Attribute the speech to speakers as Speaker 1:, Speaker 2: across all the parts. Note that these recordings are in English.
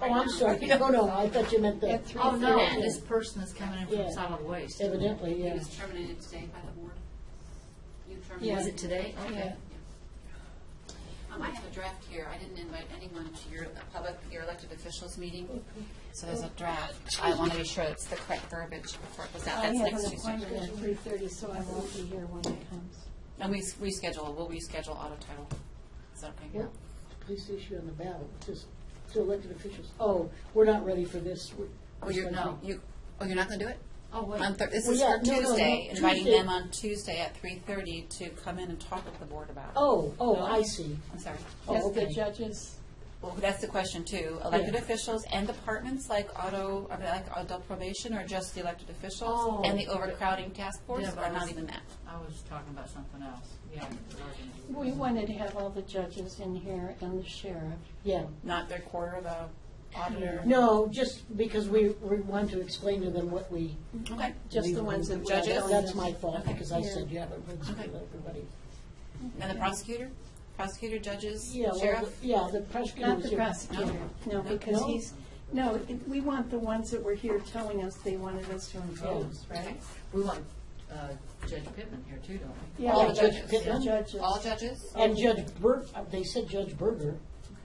Speaker 1: Oh, I'm sorry, no, no, I thought you meant the. Oh,
Speaker 2: At three
Speaker 3: Oh, no,
Speaker 2: Yeah.
Speaker 3: this person is coming in
Speaker 1: Yeah.
Speaker 3: from solid waste.
Speaker 1: Evidently,
Speaker 4: He
Speaker 1: yeah.
Speaker 4: was terminated today by the board. You terminated.
Speaker 3: Was it today? Okay.
Speaker 4: Um, I have a draft here. I didn't invite anyone to your public, your elected officials meeting. So there's a draft. I want to be sure it's the correct verbiage before it goes out.
Speaker 2: I
Speaker 4: That's
Speaker 2: have
Speaker 4: next
Speaker 2: an
Speaker 4: Tuesday.
Speaker 2: appointment at three thirty, so I won't be here when it comes.
Speaker 4: And we, s- we schedule, we'll reschedule auto title. Is that okay?
Speaker 1: What police issue on the ballot, just to elected officials, oh, we're not ready for this. we're-
Speaker 4: Oh, you're, no, you, oh, you're not going to do it?
Speaker 3: Oh, wait.
Speaker 4: On Thur, this
Speaker 1: Well,
Speaker 4: is
Speaker 1: yeah,
Speaker 4: for
Speaker 1: no, no, no,
Speaker 4: Tuesday, inviting
Speaker 1: Tuesday.
Speaker 4: them on Tuesday at three thirty to come in and talk with the board about. it.
Speaker 1: Oh, oh, I see.
Speaker 4: I'm sorry.
Speaker 1: Oh,
Speaker 2: Yes, the
Speaker 1: okay.
Speaker 2: judges,
Speaker 4: Well, that's the question too. Elected
Speaker 1: Yeah.
Speaker 4: officials and departments like auto, I mean, like adult probation or just the elected
Speaker 3: Oh.
Speaker 4: officials? And the overcrowding task force
Speaker 3: Yeah, but
Speaker 4: are not
Speaker 3: it's-
Speaker 4: even that?
Speaker 1: Oh.
Speaker 3: I was talking about something else. Yeah.
Speaker 2: we wanted to have all the judges in here and the sheriff.
Speaker 1: Yeah,
Speaker 4: Not their quarter of a auditor?
Speaker 1: no, just because we, we want to explain to them what we.
Speaker 4: Okay.
Speaker 2: Just the
Speaker 1: we-
Speaker 2: ones that we
Speaker 4: Judges?
Speaker 2: don't-
Speaker 1: That's my fault,
Speaker 4: Okay.
Speaker 1: because I
Speaker 2: Yeah.
Speaker 1: said you haven't heard
Speaker 4: Okay.
Speaker 1: everybody.
Speaker 4: And the prosecutor? Prosecutor, judges,
Speaker 1: Yeah, well,
Speaker 4: sheriff?
Speaker 1: the- yeah, the prosecutor.
Speaker 2: Not
Speaker 1: was
Speaker 2: the
Speaker 1: here.
Speaker 2: prosecutor, no, because
Speaker 1: No?
Speaker 2: he's, no, it- we want the ones that were here telling us they wanted us to
Speaker 1: Oh.
Speaker 2: impose, right?
Speaker 4: Okay.
Speaker 3: We want uh, Judge Pittman here too, don't we? Oh,
Speaker 2: Yeah,
Speaker 4: All
Speaker 2: the
Speaker 4: the judges.
Speaker 1: Pittman?
Speaker 2: Judges.
Speaker 4: All judges?
Speaker 1: And Judge Bur, uh, they said Judge Berger,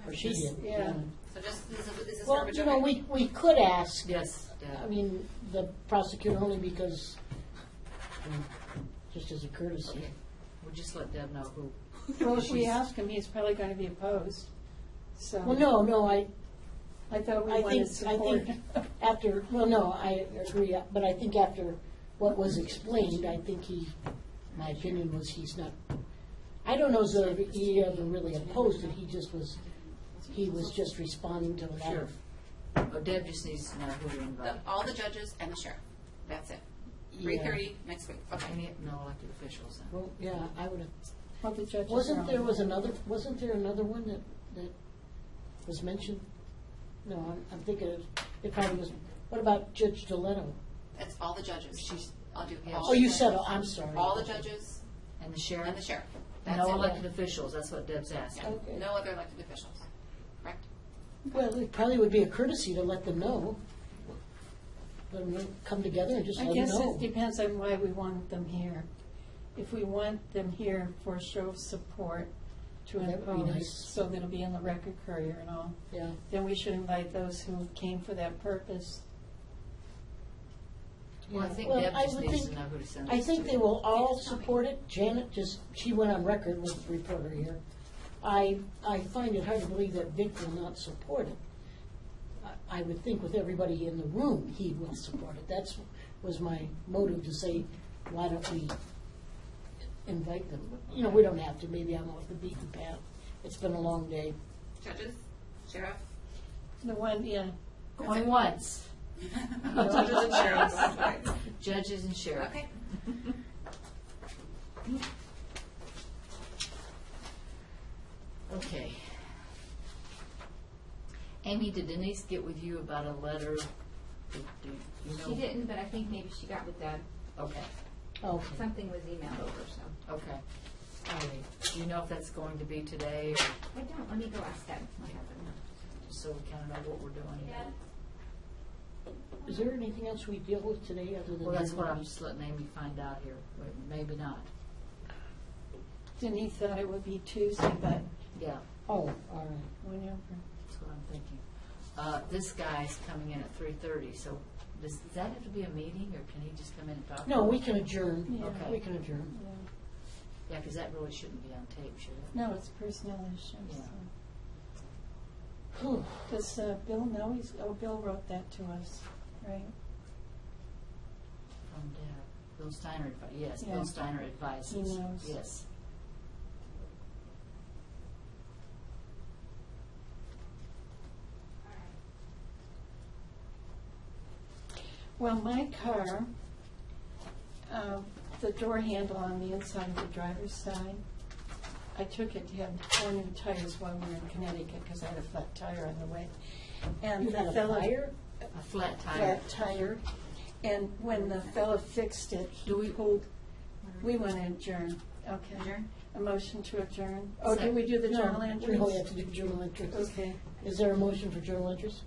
Speaker 1: or she
Speaker 2: Yes,
Speaker 1: did.
Speaker 2: yeah.
Speaker 4: So just, this is this is
Speaker 1: Well,
Speaker 4: verbiage.
Speaker 1: you know,
Speaker 4: okay?
Speaker 1: we, we could ask,
Speaker 3: Yes.
Speaker 1: I mean, the prosecutor only because, um, just as a courtesy.
Speaker 3: Okay. We'll just let Deb know who.
Speaker 2: Well, if we
Speaker 3: she's-
Speaker 2: ask him, he's probably going to be opposed, so.
Speaker 1: Well, no, no, I,
Speaker 2: I thought we
Speaker 1: I think,
Speaker 2: wanted
Speaker 1: I
Speaker 2: support.
Speaker 1: think after, well, no, I agree, but I think after what was explained, I think he, my opinion was he's not, I don't know if he ever really opposed it, he just was, he was just responding to a lot
Speaker 3: Sure.
Speaker 1: of
Speaker 3: Oh, Deb just needs to know who to invite.
Speaker 4: The- oh, All the judges and the sheriff. That's it. Three thirty next week. Okay.
Speaker 3: Any, no elected officials then.
Speaker 1: Well, yeah, I would have,
Speaker 2: All the judges are
Speaker 1: wasn't
Speaker 2: on
Speaker 1: there
Speaker 2: it.
Speaker 1: was another, wasn't there another one that, that was mentioned? No, I'm, I'm thinking of, it probably was, what about Judge Deletto?
Speaker 4: That's all the judges.
Speaker 3: She's-
Speaker 4: I'll do
Speaker 3: Yeah.
Speaker 4: all
Speaker 1: Oh, you
Speaker 4: the
Speaker 1: said,
Speaker 4: judges.
Speaker 1: oh, I'm sorry.
Speaker 4: All the judges
Speaker 3: And the sheriff?
Speaker 4: and the sheriff. That's
Speaker 3: No
Speaker 4: it.
Speaker 3: elected officials, that's what Deb's
Speaker 4: Yeah.
Speaker 3: asking.
Speaker 1: Okay.
Speaker 4: No other elected officials. Correct?
Speaker 1: Well, it probably would be a courtesy to let them know. Let them know, come together and just
Speaker 2: I
Speaker 1: let them
Speaker 2: guess
Speaker 1: know.
Speaker 2: it depends on why we want them here. If we want them here for a show of support to
Speaker 1: That would be nice.
Speaker 2: impose, so that it'll be in the record courier and all,
Speaker 1: Yeah,
Speaker 2: then we should invite those who came for that purpose.
Speaker 3: Well, I
Speaker 1: Yeah.
Speaker 3: think
Speaker 1: Well,
Speaker 3: Deb
Speaker 1: I
Speaker 3: just
Speaker 1: would
Speaker 3: needs
Speaker 1: think-
Speaker 3: to know who to send
Speaker 1: I
Speaker 3: this
Speaker 1: think
Speaker 3: to.
Speaker 1: they will all
Speaker 4: Yes, tell me.
Speaker 1: support it. Janet just, she went on record with the reporter here. I, I find it hard to believe that Vic will not support it. I- I would think with everybody in the room, he will support it. That's, was my motive to say, why don't we invite them? You know, we don't have to, maybe I'm off the beaten path. It's been a long day.
Speaker 4: Judges, sheriff.
Speaker 2: The one, yeah,
Speaker 3: Going once.
Speaker 4: Judges and sheriffs.
Speaker 3: Judges and sheriff.
Speaker 4: Okay.
Speaker 3: Okay. Amy, did Denise get with you about a letter? Do- do you know?
Speaker 5: She didn't, but I think maybe she got with Deb.
Speaker 3: Okay,
Speaker 1: Okay,
Speaker 5: Something was emailed over, so.
Speaker 3: okay. All right. Do you know if that's going to be today, or
Speaker 5: I don't, let me go ask Deb what happened.
Speaker 3: so we kind of know what we're doing?
Speaker 1: is there anything else we deal with today other than?
Speaker 3: Well, that's what I'm just letting Amy find out here. Wait, Maybe not.
Speaker 2: Denise thought it would be Tuesday, but
Speaker 3: Yeah,
Speaker 1: Oh, all right.
Speaker 2: whenever.
Speaker 3: that's what I'm thinking. Uh, this guy's coming in at three thirty, so does, does that have to be a meeting, or can he just come in and talk?
Speaker 1: No, we can adjourn.
Speaker 2: Yeah.
Speaker 3: Okay.
Speaker 1: We can adjourn.
Speaker 2: yeah.
Speaker 3: Yeah, because that really shouldn't be on tape, should it?
Speaker 2: No, it's personnel issues.
Speaker 3: Yeah.
Speaker 1: Whew.
Speaker 2: Does uh, Bill know he's, oh, Bill wrote that to us, right?
Speaker 3: From Deb. Bill Steiner, advi- yes,
Speaker 2: Yeah.
Speaker 3: Bill Steiner advises.
Speaker 2: He knows.
Speaker 3: Yes.
Speaker 2: Well, my car, um, the door handle on the inside of the driver's side, I took it to have four new tires while we were in Connecticut because I had a flat tire on the way. And
Speaker 1: You
Speaker 2: the
Speaker 1: had a
Speaker 2: fellow-
Speaker 1: fire?
Speaker 3: A flat tire.
Speaker 2: Flat tire. And when the fellow fixed it, he
Speaker 3: Do we-
Speaker 2: pulled, we want to adjourn. Okay.
Speaker 4: Adjourn?
Speaker 2: A motion to adjourn. Oh,
Speaker 3: Sec-
Speaker 2: did we do the
Speaker 1: No,
Speaker 2: journal
Speaker 1: We
Speaker 2: entries?
Speaker 1: only have to do journal entries.
Speaker 2: Okay.
Speaker 1: Is there a motion for journal entries?